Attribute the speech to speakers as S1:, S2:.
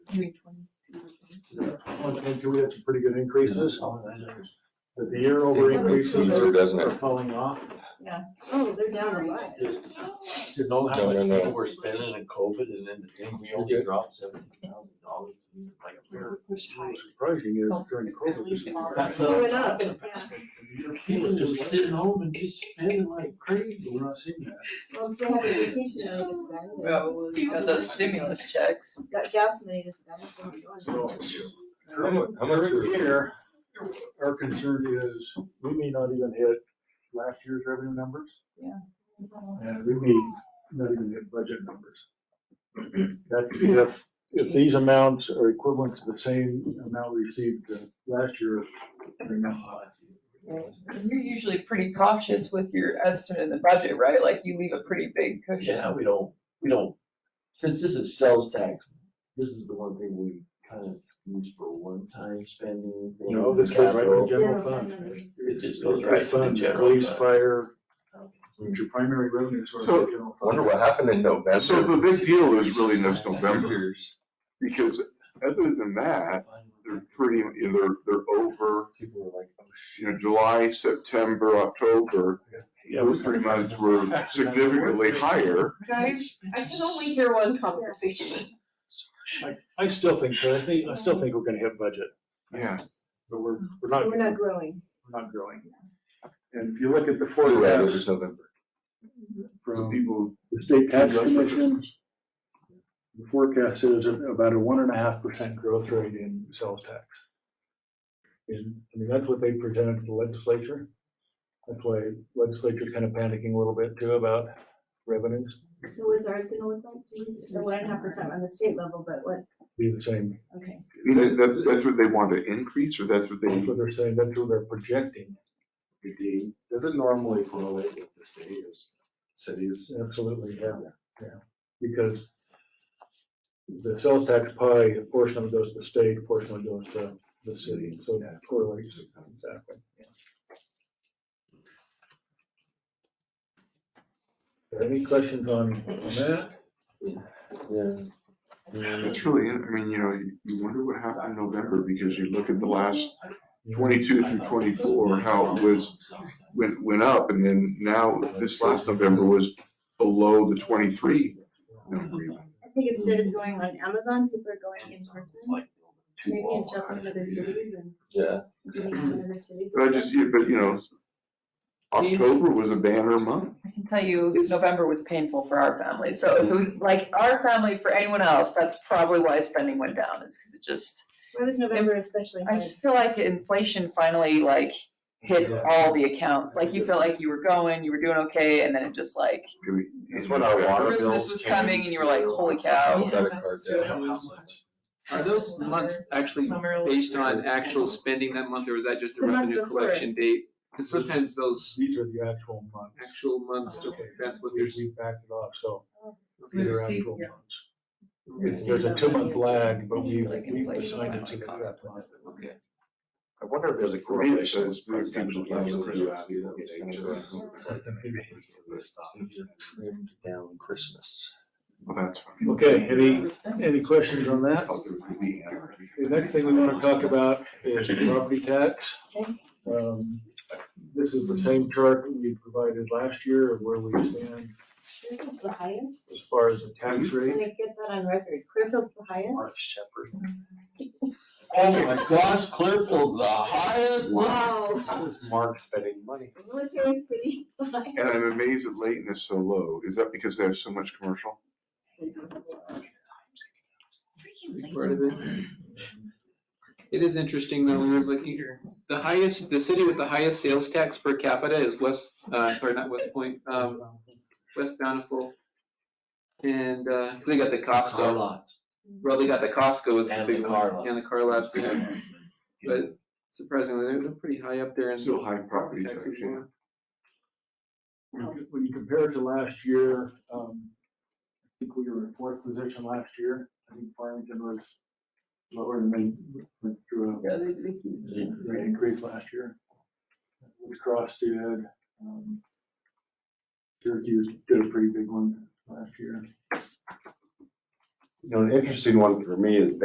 S1: Three twenty-two.
S2: One thing too, we had some pretty good increases, but the year over
S1: Yeah, but it's
S2: increases
S1: still
S2: are
S3: Easier, doesn't
S2: are
S3: it?
S2: falling off.
S1: Oh, they're down a lot.
S4: To know how
S3: No,
S4: much
S3: no, no.
S4: people were spending in COVID and then the thing, we only
S3: Okay.
S4: dropped seventeen thousand dollars. Like a bear.
S1: Push high.
S2: Surprising is during COVID. this year.
S4: That's
S1: It
S4: what I'm
S1: went up,
S4: talking about.
S1: yeah.
S4: People just sitting home and just spending like crazy. We're not seeing that.
S1: Well, they had vacation money to spend, and
S5: Well, you got those stimulus checks.
S1: got gas money to spend. so we're doing it.
S2: So,
S3: How mu- how much
S2: During
S3: are-
S2: the year, our concern is, we may not even hit last year's revenue numbers.
S1: Yeah.
S2: And we may not even hit budget numbers. That if, if these amounts are equivalent to the same amount we received uh, last year. then
S5: And You're usually pretty cautious with your estimate in the budget, right? Like you leave a pretty big cushion.
S4: Yeah, we don't, we don't, since this is sales tax, this is the one thing we kind of use for one-time spending. thing,
S2: No, this goes right to the
S4: capital.
S2: general fund.
S4: It just goes right to the
S2: Fund,
S4: general
S2: Police,
S4: fund.
S2: fire, your primary revenue source is the general fund.
S3: Wonder what happened in
S6: So the
S3: November.
S6: big deal is really this November, because other than that, they're pretty, you know, they're, they're over,
S4: People were like, oh shit.
S6: you know, July, September, October.
S2: Yeah,
S6: Those
S2: we-
S6: three months were significantly higher.
S5: Guys, I can only hear one conversation.
S2: I, I still think, I think, I still think we're gonna hit budget,
S6: Yeah,
S2: but we're, we're not,
S1: We're
S2: we're
S1: not growing.
S2: not growing. And if you look at the
S3: Before that, Oh, it
S2: forecast
S3: was November.
S6: so
S2: from
S6: people.
S2: the state tax commission, the forecast is about a one and a half percent growth rate in sales tax. And, I mean, that's what they presented to the legislature. That's why legislature's kind of panicking a little bit too about revenues,
S1: So is ours gonna look like, geez, the one and a half percent on the state level, but what,
S2: be the same.
S1: okay.
S6: And that- that's, that's what they want to increase, or that's what
S2: That's
S6: they,
S2: what they're saying, that's what they're projecting,
S4: Does it normally correlate with the state as cities?
S2: absolutely, yeah, yeah. Because the sales tax pie, a portion of it goes to the state, a portion of it goes to the city, so that correlates exactly. yeah. Any questions on on that?
S6: it's really, I mean, you know, you- you wonder what happened in November, because you look at the last twenty-two through twenty-four, how it was went, went up, and then now, this last November was below the twenty-three number even.
S1: I think instead of going on Amazon, people are going in person, maybe and jumping to other cities and
S3: Yeah.
S1: doing it in other cities.
S6: But I just, yeah, but you know, October was a banner month.
S5: I can tell you, November was painful for our family, so if it was like our family, for anyone else, that's probably why spending went down, is because it just,
S1: Why was November especially
S5: I
S1: hard?
S5: just feel like inflation finally like hit all the accounts, like you felt like you were going, you were doing okay, and then it just like,
S4: That's when our water bills
S5: Christmas was
S4: came.
S5: coming and you were like, holy cow.
S3: Got a card
S4: Yeah,
S3: down.
S4: how much?
S7: Are those months actually based on actual spending that month, or is that just a
S1: The month
S7: revenue
S1: before.
S7: collection date? Because sometimes those
S2: These are the actual months.
S7: actual months, that's what
S2: We
S7: there's.
S2: we backed it off, so
S5: We
S2: these are
S5: received-
S2: actual
S5: yeah.
S2: months. It's- There's a two-month lag, but we, we assigned it to the correct month.
S7: Okay.
S4: I wonder if there's a correlation with presidential elections. Down Christmas.
S6: Well, that's funny.
S2: Okay, any, any questions on that?
S6: Thought there was the anarchy.
S2: The next thing we want to talk about is property tax. Um, This is the same chart that we provided last year of where we stand
S1: Clearfield's the highest?
S2: as far as the tax
S1: I'm
S2: rate.
S1: gonna get that on record. Clearfield's the highest?
S4: Mark Shepherd. Oh my gosh, Clearfield's the highest.
S1: Wow.
S4: How is Mark spending money?
S1: Military city, the highest.
S6: And I'm amazed that Layton is so low. Is that because they have so much commercial?
S7: big part of it. It is interesting though, when I was looking here, the highest, the city with the highest sales tax per capita is West, uh, sorry, not West Point, um, West Bountiful. And, uh, they got the Costco,
S4: lots.
S7: well, they got the Costco is the
S4: And the
S7: big
S4: car
S7: one,
S4: lots.
S7: and the car lots, yeah.
S4: But
S7: But surprisingly, they're, they're pretty high up there in.
S6: Still high property tax,
S7: taxes,
S6: yeah.
S2: When you compare it to last year, um, I think we were in fourth position last year. I think Farmington was lower than they went through
S5: Yeah, they- they keep-
S2: a rate increase last year. We crossed did. um, Syracuse did a pretty big one last year.
S4: You know, an interesting one for me is